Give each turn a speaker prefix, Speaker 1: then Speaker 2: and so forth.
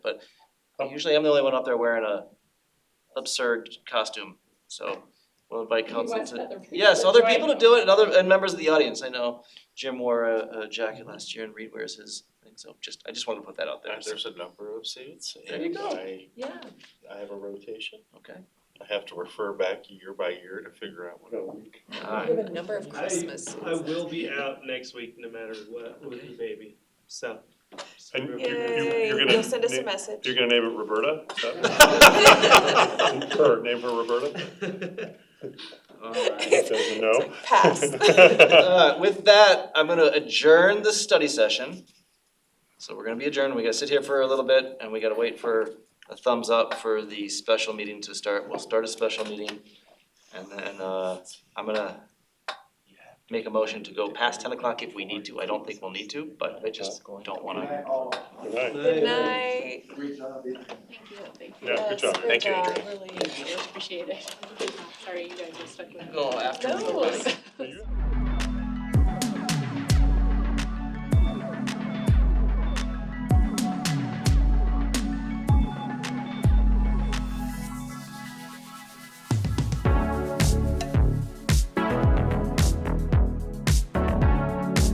Speaker 1: But usually I'm the only one up there wearing a absurd costume, so we'll invite
Speaker 2: You
Speaker 1: council
Speaker 2: want
Speaker 1: to.
Speaker 2: other people
Speaker 1: Yes,
Speaker 2: to
Speaker 1: other
Speaker 2: join
Speaker 1: people to
Speaker 2: you.
Speaker 1: do it and other, and members of the audience, I know Jim wore a, a jacket last year and Reed wears his thing, so just, I just wanted to put that out there.
Speaker 3: Uh, There's a number of seats
Speaker 1: There you
Speaker 3: and
Speaker 2: go.
Speaker 3: I,
Speaker 2: Yeah,
Speaker 3: I have a rotation.
Speaker 1: Okay,
Speaker 3: I have to refer back year by year to figure out what I want.
Speaker 1: alright,
Speaker 2: you have a number of Christmas.
Speaker 4: I will be out next week no matter what with the baby, so.
Speaker 5: And you- you,
Speaker 6: Yay,
Speaker 5: you're
Speaker 6: you'll send
Speaker 5: gonna,
Speaker 6: us a
Speaker 5: na-
Speaker 6: message.
Speaker 5: you're gonna name it Roberta? Is that- Her, name her Roberta?
Speaker 1: alright.
Speaker 5: Doesn't know?
Speaker 6: Pass.
Speaker 1: Uh, with that, I'm gonna adjourn the study session. So we're gonna be adjourned, we gotta sit here for a little bit and we gotta wait for a thumbs up for the special meeting to start. We'll start a special meeting and then, uh, I'm gonna make a motion to go past ten o'clock if we need to. I don't think we'll need to, but I just don't wanna.
Speaker 5: All right.
Speaker 6: Good night.
Speaker 7: Thank you, thank you.
Speaker 5: Yeah, good job.
Speaker 6: Yes,
Speaker 3: Thank you,
Speaker 6: good
Speaker 3: Adrian.
Speaker 6: job. Really.
Speaker 7: Thank you, appreciate it. Sorry, you guys are stuck with me.
Speaker 1: No, after.
Speaker 6: No.
Speaker 5: Are you